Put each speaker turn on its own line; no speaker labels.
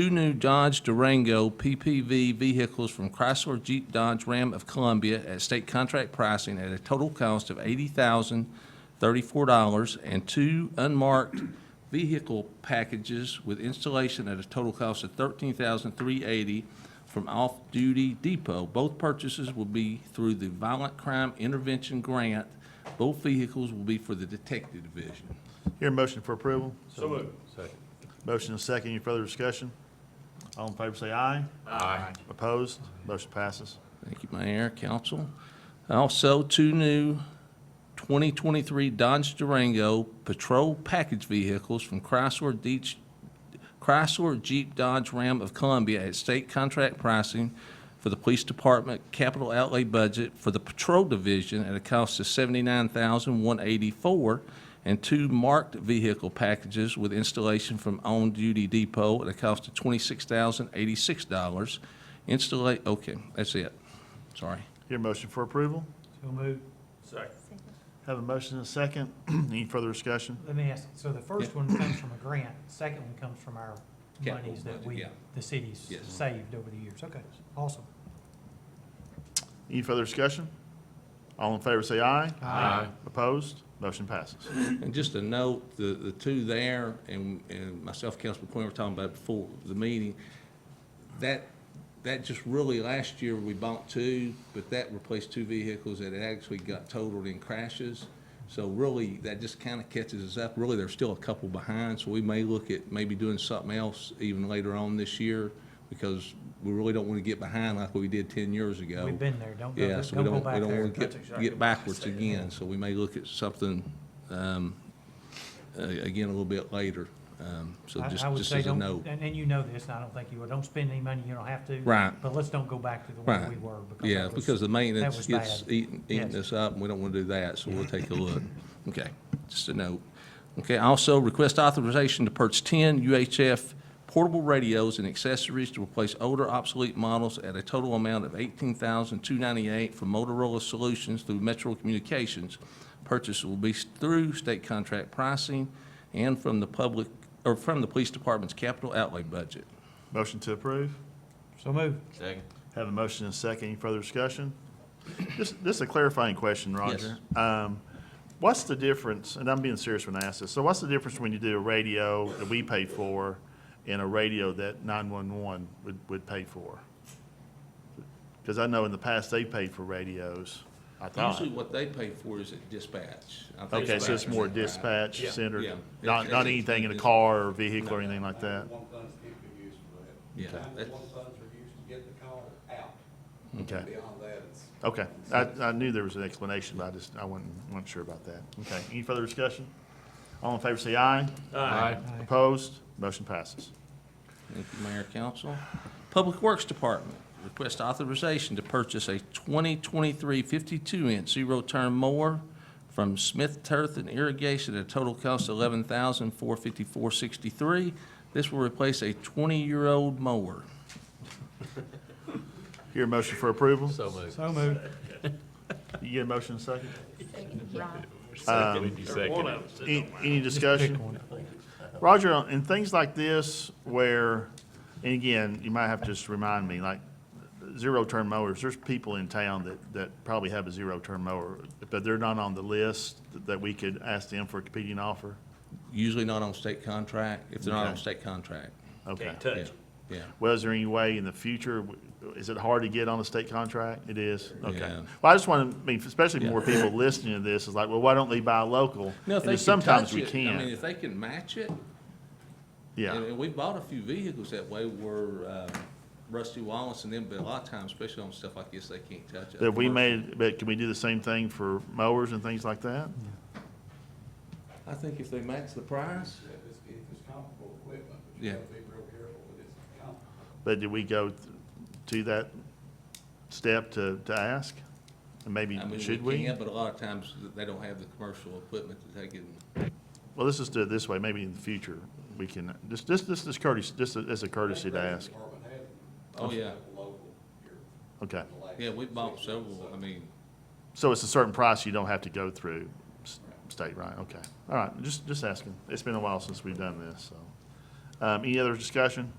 two new Dodge Durango PPV vehicles from Chrysler Jeep Dodge Ram of Columbia at state contract pricing at a total cost of $80,034, and two unmarked vehicle packages with installation at a total cost of $13,380 from Off Duty Depot. Both purchases will be through the Violent Crime Intervention Grant. Both vehicles will be for the Detective Division.
Hear a motion for approval?
So moved.
Motion and second. Any further discussion? All in favor say aye.
Aye.
Opposed? Motion passes.
Thank you, Mayor, Council. Also, two new 2023 Dodge Durango Patrol Package Vehicles from Chrysler Deech- Chrysler Jeep Dodge Ram of Columbia at state contract pricing for the Police Department capital outlay budget for the Patrol Division at a cost of $79,184, and two marked vehicle packages with installation from On Duty Depot at a cost of $26,086. Installa, okay, that's it. Sorry.
Hear a motion for approval?
So moved. Second.
Have a motion and second. Any further discussion?
Let me ask, so the first one comes from a grant, second one comes from our
Capital
monies that
budget,
we,
yeah.
the cities
Yes.
saved over the years. Okay, awesome.
Any further discussion? All in favor say aye.
Aye.
Opposed? Motion passes.
And just a note, the, the two there, and, and myself, Councilman Quinn, were talking about it before the meeting, that, that just really, last year, we bought two, but that replaced two vehicles that had actually got totaled in crashes. So really, that just kind of catches us up. Really, there's still a couple behind, so we may look at maybe doing something else even later on this year, because we really don't want to get behind like we did ten years ago.
We've been there. Don't go,
Yeah,
don't
so we
go
don't, we
back
don't
there.
want to get, get backwards again, so we may look at something, um, uh, again, a little bit later. Um, so
I-
just,
I would
just
say
as a
don't-
note.
And, and you know this, and I don't think you will. Don't spend any money you don't have to.
Right.
But let's don't go back to the way
Right.
we were. because
Yeah,
that was-
because the maintenance
was
gets
bad.
eating, eating
Yes.
us up, and we don't want to do that, so we'll take a look. Okay, just a note. Okay, also, request authorization to purchase ten UHF portable radios and accessories to replace older obsolete models at a total amount of eighteen thousand two ninety-eight from Motorola Solutions through Metro Communications. Purchase will be through state contract pricing and from the public, or from the police department's capital outlay budget.
Motion to approve.
So moved.
Second.
Have a motion and second. Any further discussion? Just, this is a clarifying question, Roger. Um, What's the difference, and I'm being serious when I ask this, so what's the difference when you do a radio that we pay for and a radio that 911 would, would pay for? Because I know in the past, they paid for radios, I thought.
Usually what they pay for is at dispatch. I think
Okay, so it's more
dispatch.
dispatch
Yeah.
centered,
Yeah.
not, not anything in a car or vehicle or anything like that?
One funds can be used for that.
Yeah,
Sometimes
that's-
one funds are used to get the call out.
Okay.
Beyond that, it's.
Okay, I, I knew there was an explanation, but I just, I wasn't, wasn't sure about that. Okay, any further discussion? All in favor say aye.
Aye.
Opposed? Motion passes.
Thank you, Mayor, Council. Public Works Department, request authorization to purchase a 2023 52-inch zero-turn mower from Smith Turf and Irrigation at a total cost of $11,454.63. This will replace a 20-year-old mower.
Hear a motion for approval?
So moved.
So moved.
You get a motion in a second? Um,
Second. Second.
Any, any
Pick
discussion?
one.
Roger, in things like this where, and again, you might have to just remind me, like, zero-turn mowers, there's people in town that, that probably have a zero-turn mower, but they're not on the list that we could ask them for a competing offer?
Usually not on state contract, if they're not on
Okay.
state contract.
Okay.
Yeah, Yeah.
Well, is there any way in the future, is it hard to get on a state contract? It is? Okay.
Yeah.
Well, I just want to, I mean, especially more
Yeah.
people listening to this, is like, well, why don't they buy local?
No, if
And
they can
Sometimes
touch
we
it, I mean,
can't.
if they can match it, And,
Yeah,
and we bought a few vehicles that way where, um, Rusty Wallace and them, but a lot of times, especially on stuff like this, they can't touch it.
that we made, but can we do the same thing for mowers and things like that?
I think if they match the price,
If it's, if it's comparable equipment, but
Yeah.
you gotta be real careful with this comparable.
But did we go th- to that step to, to ask? And maybe,
I mean,
should
we
we?
can, but a lot of times, they don't have the commercial equipment to take it. and-
Well, let's just do it this way, maybe in the future, we can, just, just, this is courtesy, just as a courtesy to ask.
Department has them.
Oh,
Most
yeah.
of the Local here.
Okay.
in the last
Yeah, we bought
six
several,
months,
I
so
mean,
So it's a certain price you don't have to go through s- state, right? Okay. All right, just, just asking. It's been a while since we've done this, so. Um, any other discussion?